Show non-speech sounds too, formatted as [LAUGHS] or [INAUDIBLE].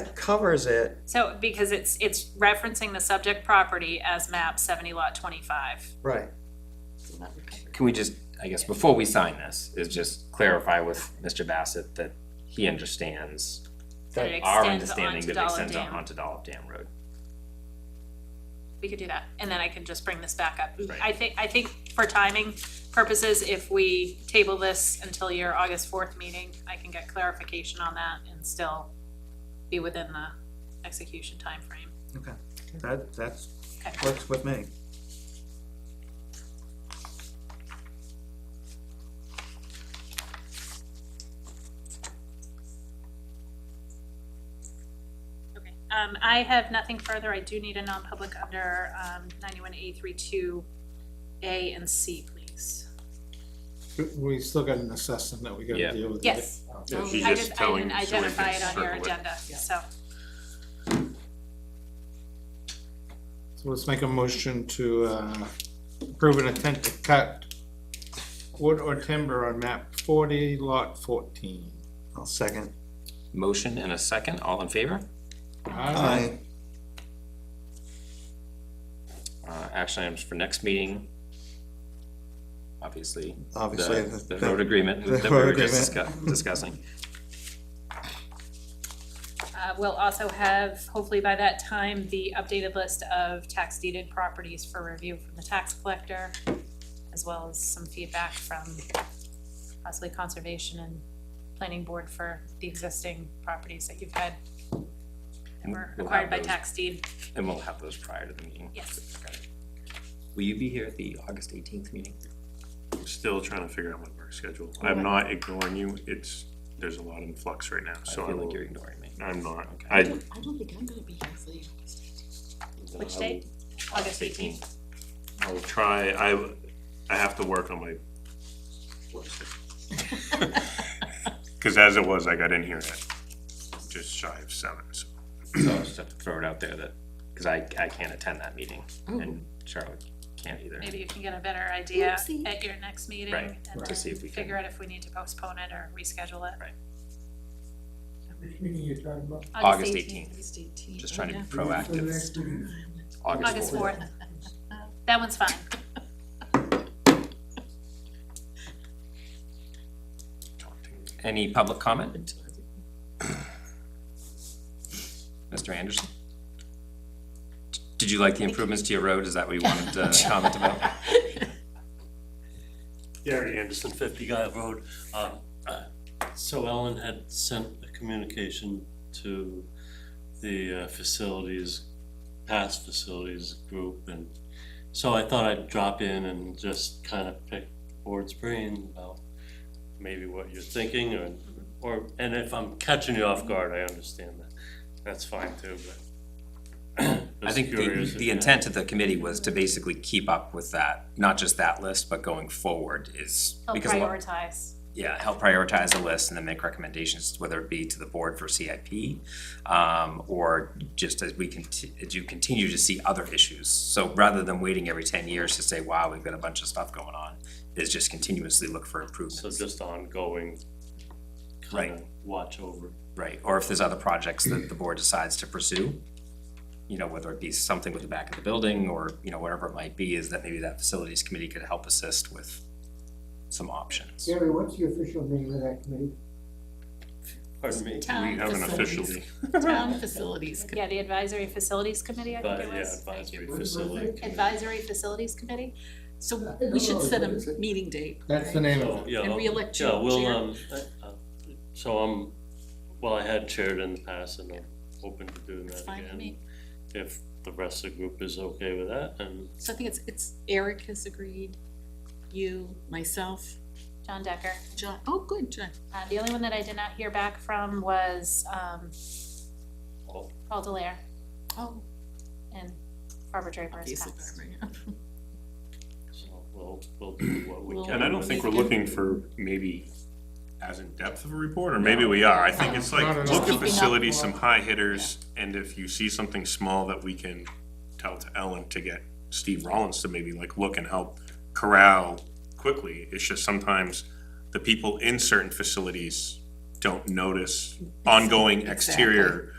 That covers it. So, because it's, it's referencing the subject property as map seventy lot twenty-five. Right. Can we just, I guess, before we sign this, is just clarify with Mr. Bassett that he understands That it our extends understanding onto that it Dollar extends on- Dam. onto Dollop Dam Road. We could do that, and then I can just bring this back up. Right. I think, I think for timing purposes, if we table this until your August fourth meeting, I can get clarification on that and still be within the execution timeframe. Okay, that, that's, Okay. works with me. Okay, um, I have nothing further. I do need a non-public under, um, ninety-one A three two A and C, please. But We still got an assessment that we Yeah. gotta deal with. Yes. Yeah, she's I just didn't, I telling didn't you so we identify can it on your circle it. agenda, so, So let's make a motion to, uh, approve an attempt to cut wood or timber on map forty, lot fourteen. I'll second. Motion and a second, all in favor? Aye. Uh, action items for next meeting. Obviously, Obviously, the, the, the road the- agreement the that we road were just agreement. [LAUGHS] discuss- discussing. uh, we'll also have, hopefully by that time, the updated list of tax deeded properties for review from the tax collector, as well as some feedback from possibly conservation and planning board for the existing properties that you've had that And were we'll have acquired by those- tax deed, And we'll have those prior to the meeting. yes. Okay. Will you be here at the August eighteenth meeting? I'm Still trying to figure out my work schedule. I'm not ignoring you, it's, there's a lot in flux right now, so I I feel like will, you're ignoring me. I'm not, Okay. I, don't- I don't think I'm gonna be here for the August eighteenth. Which date? August August eighteenth. I'll try, I, I have to work on my work schedule. [LAUGHS] Cause as it was, I got in here at just shy of seven, so. So I just have to throw it out there that, because I, I can't attend that meeting and Charlotte can't either. Oh. Maybe you can get a better idea Oopsie. at your next meeting Right, and to see then if we can- figure out if we need to postpone it or reschedule it. Right. Which meeting you're talking about? August eighteenth, August eighteenth. just trying to be For the proactive. next meeting? August August fourth. [LAUGHS] fourth. That one's fine. daunting. Any public comment? Mr. Anderson? Did you like the improvements to your road? Is that what you [LAUGHS] wanted to comment [LAUGHS] about? Gary Anderson, 50 Guy Road. Um, uh, So Ellen had sent a communication to the uh, facilities, past facilities group, and so I thought I'd drop in and just kind of pick the board's brain about maybe what you're thinking, or, or, and if I'm catching you off guard, I understand that. That's fine too, but. [CLEARS THROAT] I was think the, curious if the you had- intent of the committee was to basically keep up with that, not just that list, but going forward is. They'll because a lot- prioritize. yeah, help prioritize the list and then make recommendations, whether it be to the board for CIP, um, or just as we conti- as you continue to see other issues. So rather than waiting every ten years to say, wow, we've got a bunch of stuff going on, is just continuously look for So improvements, just ongoing. Right. Kind of watch over. right? Or if there's other projects that the board decides to pursue, you know, whether it be something with the back of the building or, you know, whatever it might be, is that maybe that facilities committee could help assist with some options. Gary, what's the official name of that committee? Pardon me? Uh, We have an official, [LAUGHS] Town facilities. Yeah, the advisory facilities committee, I But think it yeah, was. advisory you. facility. committee. Advisory facilities committee? So we should set a meeting date. That's the name of So, it. yeah, And I'll- reelect yeah, your we'll, chair. um, uh, uh, So I'm, well, I had chaired in the past and I'm open to doing that It's fine with again. me. If the rest of the group is okay with that and So I think it's, it's Eric has agreed, you, myself, John Decker. John, oh, good, John. Uh, the only one that I did not hear back from was, um, Paul. Paul Delaire Oh. and Barbara Draper as Lisa past. Barber, yeah. so we'll, we'll do what we We'll- can. and I don't think we're looking for maybe as in-depth of a report, or maybe we are. I think it's Not like, at look all. at facilities, some high hitters, and if you see something small that we can tell to Ellen to get Steve Rollins to maybe like look and help corral quickly. It's just sometimes the people in certain facilities don't notice ongoing exterior